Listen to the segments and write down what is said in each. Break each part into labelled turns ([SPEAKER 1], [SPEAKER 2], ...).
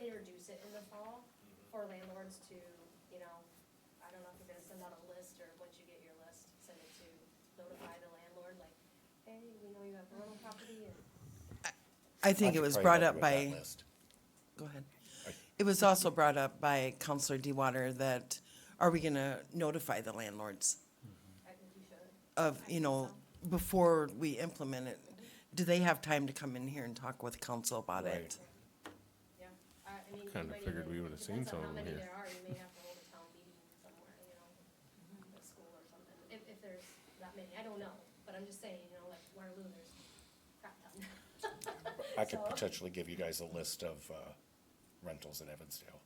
[SPEAKER 1] introduce it in the fall
[SPEAKER 2] Mm-hmm.
[SPEAKER 1] for landlords to, you know, I don't know if you're gonna send out a list or once you get your list, send it to notify the landlord, like, hey, we know you have a rental property and
[SPEAKER 3] I think it
[SPEAKER 4] could
[SPEAKER 3] was
[SPEAKER 4] probably
[SPEAKER 3] brought
[SPEAKER 4] help
[SPEAKER 3] up
[SPEAKER 4] you with that
[SPEAKER 3] by,
[SPEAKER 4] list.
[SPEAKER 3] go ahead. It was also brought up by Counselor DeWater that, are we gonna notify the landlords
[SPEAKER 1] I think you should.
[SPEAKER 3] of, you know, before we implement it? Do they have time to come in here and talk with council about it?
[SPEAKER 1] Yeah, I, I mean. you
[SPEAKER 2] Kinda
[SPEAKER 1] might
[SPEAKER 2] figured
[SPEAKER 1] even-
[SPEAKER 2] we would've seen
[SPEAKER 1] depends on
[SPEAKER 2] some of them here.
[SPEAKER 1] How many there are, you may have to hold a town meeting somewhere, you know, at school or something, if, if there's that many, I don't know, but I'm just saying, you know, like Waterloo, there's crap ton.
[SPEAKER 4] I could
[SPEAKER 1] So-
[SPEAKER 4] potentially give you guys a list of uh, rentals in Evansdale.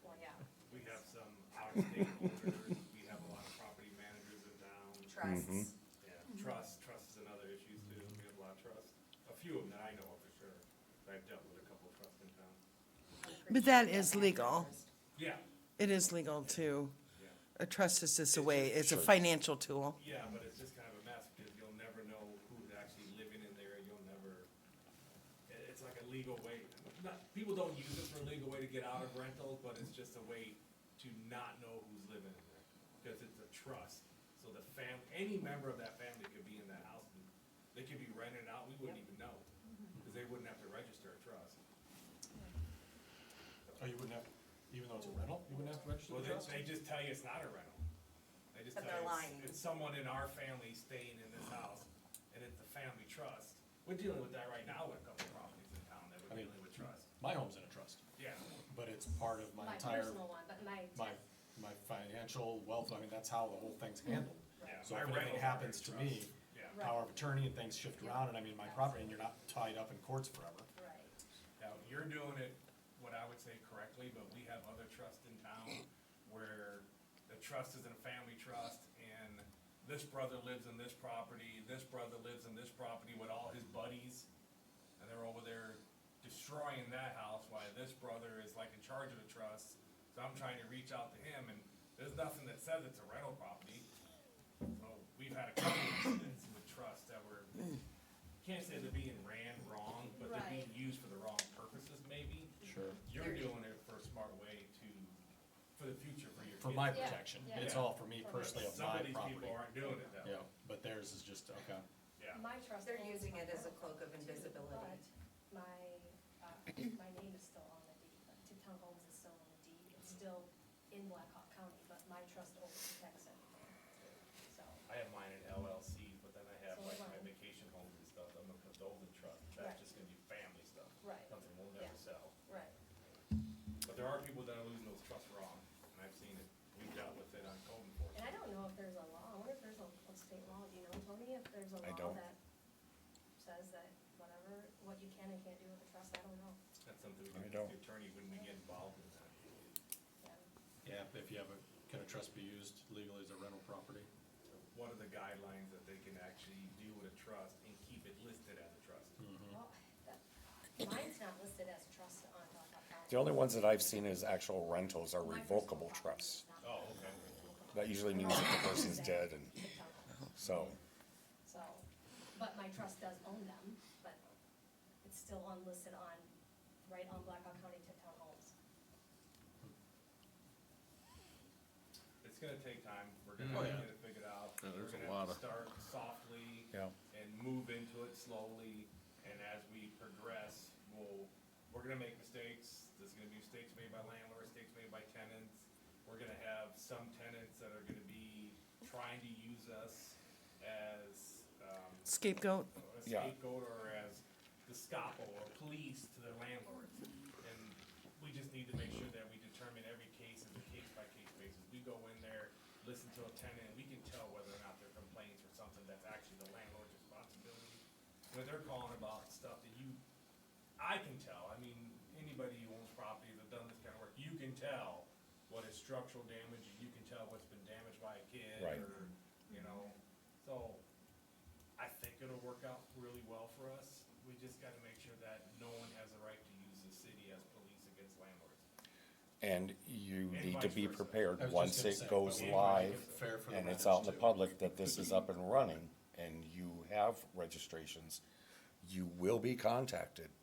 [SPEAKER 1] Well, yeah,
[SPEAKER 5] We have some out-of-state owners, we have a lot of property managers in town.
[SPEAKER 6] trusts.
[SPEAKER 5] Yeah, trust, trust is another issue too, we have a lot of trusts, a few of them that I know of for sure, I've dealt with a couple of trusts in town.
[SPEAKER 3] But that is legal.
[SPEAKER 5] Yeah,
[SPEAKER 3] It is legal to,
[SPEAKER 5] yeah,
[SPEAKER 3] a trust is just a way, it's a financial tool.
[SPEAKER 5] yeah, but it's just kind of a mess, because you'll never know who's actually living in there, you'll never, it, it's like a legal way, not, people don't use it for a legal way to get out of rentals, but it's just a way to not know who's living in there, because it's a trust. So the fam, any member of that family could be in that house, and they could be renting out, we wouldn't even know, because they wouldn't have to register a trust.
[SPEAKER 7] Oh, you wouldn't have, even though it's a rental, you wouldn't have to register
[SPEAKER 5] Well,
[SPEAKER 7] the
[SPEAKER 5] they,
[SPEAKER 7] trust?
[SPEAKER 5] they just tell you it's not a rental. They just
[SPEAKER 6] But
[SPEAKER 5] tell
[SPEAKER 6] they're
[SPEAKER 5] you
[SPEAKER 6] lying.
[SPEAKER 5] it's, it's someone in our family staying in this house, and it's a family trust. We're dealing with that right now with a couple of properties in town that
[SPEAKER 7] I
[SPEAKER 5] we're
[SPEAKER 7] mean-
[SPEAKER 5] dealing with trust,
[SPEAKER 7] My home's in a trust,
[SPEAKER 5] yeah.
[SPEAKER 7] but it's part of my
[SPEAKER 1] my
[SPEAKER 7] entire,
[SPEAKER 1] personal one, but my.
[SPEAKER 7] my, my financial wealth, I mean, that's how the whole thing's handled.
[SPEAKER 5] Yeah,
[SPEAKER 7] So
[SPEAKER 5] my
[SPEAKER 7] if
[SPEAKER 5] rental
[SPEAKER 7] anything happens to
[SPEAKER 5] property
[SPEAKER 7] me,
[SPEAKER 5] trust. Yeah,
[SPEAKER 1] Right.
[SPEAKER 7] power of attorney and things shift around, and I mean, my property, and you're not tied up in courts forever.
[SPEAKER 1] Right.
[SPEAKER 5] now, you're doing it, what I would say correctly, but we have other trusts in town where the trust is in a family trust, and this brother lives in this property, this brother lives in this property with all his buddies. and they're over there destroying that house while this brother is like in charge of the trust. So I'm trying to reach out to him and there's nothing that says it's a rental property. So we've had a couple incidents with trusts that were, can't say they're being ran wrong, but they're being used for the wrong purposes maybe.
[SPEAKER 7] Sure.
[SPEAKER 5] You're doing it for a smart way to, for the future for your kids.
[SPEAKER 7] For my
[SPEAKER 1] Yeah,
[SPEAKER 7] protection,
[SPEAKER 1] yeah.
[SPEAKER 7] it's all for me
[SPEAKER 1] But
[SPEAKER 7] personally of
[SPEAKER 5] Some
[SPEAKER 7] my
[SPEAKER 5] of these
[SPEAKER 7] property.
[SPEAKER 5] people aren't doing it that
[SPEAKER 7] Yeah,
[SPEAKER 5] way.
[SPEAKER 7] but theirs is just, okay,
[SPEAKER 5] Yeah.
[SPEAKER 1] My trust.
[SPEAKER 6] They're
[SPEAKER 1] owns
[SPEAKER 6] using
[SPEAKER 1] my
[SPEAKER 6] it as a
[SPEAKER 1] rental
[SPEAKER 6] cloak of
[SPEAKER 1] property,
[SPEAKER 6] invisibility.
[SPEAKER 1] but My, uh, my name is still on the deed, like, Town Homes is still on the deed, it's still in Blackhawk County, but my trust owns protects everything, so.
[SPEAKER 5] I have mine in LLC, but then I have
[SPEAKER 1] So
[SPEAKER 5] like
[SPEAKER 1] do
[SPEAKER 5] my
[SPEAKER 1] I.
[SPEAKER 5] vacation homes and stuff, I'm a condolen trust,
[SPEAKER 1] Right.
[SPEAKER 5] that's just gonna be family stuff.
[SPEAKER 1] Right.
[SPEAKER 5] Something we'll
[SPEAKER 1] Yeah.
[SPEAKER 5] never sell.
[SPEAKER 1] Right.
[SPEAKER 5] But there are people that are losing those trusts wrong, and I've seen it, we've dealt with it on code
[SPEAKER 1] And
[SPEAKER 5] enforcement.
[SPEAKER 1] I don't know if there's a law, I wonder if there's a, a state law, do you know, Tony, if there's a
[SPEAKER 4] I
[SPEAKER 1] law
[SPEAKER 4] don't.
[SPEAKER 1] that says that whatever, what you can and can't do with a trust, I don't know.
[SPEAKER 5] That's something we
[SPEAKER 4] I
[SPEAKER 5] can,
[SPEAKER 4] don't.
[SPEAKER 5] the attorney, when we get involved in that.
[SPEAKER 1] Yeah.
[SPEAKER 7] yeah, if you have a, can a trust be used legally as a rental property?
[SPEAKER 5] What are the guidelines that they can actually do with a trust and keep it listed as a trust?
[SPEAKER 4] Mm-hmm.
[SPEAKER 1] Well, that, mine's not listed as trust on Blackhawk County.
[SPEAKER 4] The only ones that I've seen as actual rentals are
[SPEAKER 1] My
[SPEAKER 4] revocable
[SPEAKER 1] personal property
[SPEAKER 4] trusts.
[SPEAKER 1] is not
[SPEAKER 5] Oh, okay.
[SPEAKER 4] That usually means that the person's dead and
[SPEAKER 1] picked up on,
[SPEAKER 4] so,
[SPEAKER 1] So, but my trust does own them, but it's still unlisted on, right on Blackhawk County Tipton Homes.
[SPEAKER 5] It's gonna take time, we're
[SPEAKER 7] Mm. Oh,
[SPEAKER 5] gonna
[SPEAKER 7] yeah.
[SPEAKER 5] get it figured out.
[SPEAKER 2] Yeah, there's a
[SPEAKER 5] We're
[SPEAKER 2] lot
[SPEAKER 5] gonna have
[SPEAKER 2] of-
[SPEAKER 5] to Start softly.
[SPEAKER 4] Yeah.
[SPEAKER 5] And move into it slowly, and as we progress, we'll, we're gonna make mistakes, there's gonna be mistakes made by landlords, mistakes made by tenants. We're gonna have some tenants that are gonna be trying to use us as, um,
[SPEAKER 3] Scapegoat?
[SPEAKER 5] a
[SPEAKER 4] Yeah.
[SPEAKER 5] scapegoat or as the scapo or police to their landlords. And we just need to make sure that we determine every case as a case by case basis. We go in there, listen to a tenant, and we can tell whether or not they're complaints or something that's actually the landlord's responsibility. When they're calling about stuff that you, I can tell, I mean, anybody who owns property that done this kind of work, you can tell what is structural damage, and you can tell what's been damaged by a kid
[SPEAKER 4] Right.
[SPEAKER 5] or, you know, so I think it'll work out really well for us. We just gotta make sure that no one has the right to use the city as police against landlords.
[SPEAKER 4] and you
[SPEAKER 5] And
[SPEAKER 4] need to
[SPEAKER 5] vice
[SPEAKER 4] be
[SPEAKER 5] versa.
[SPEAKER 4] prepared
[SPEAKER 7] I was just
[SPEAKER 4] once
[SPEAKER 7] gonna
[SPEAKER 4] it
[SPEAKER 7] say,
[SPEAKER 4] goes
[SPEAKER 7] but we wanna make
[SPEAKER 4] live
[SPEAKER 7] it fair for the
[SPEAKER 4] and it's out in the
[SPEAKER 7] renters, too.
[SPEAKER 4] public that this is up and running and you have registrations, you will be contacted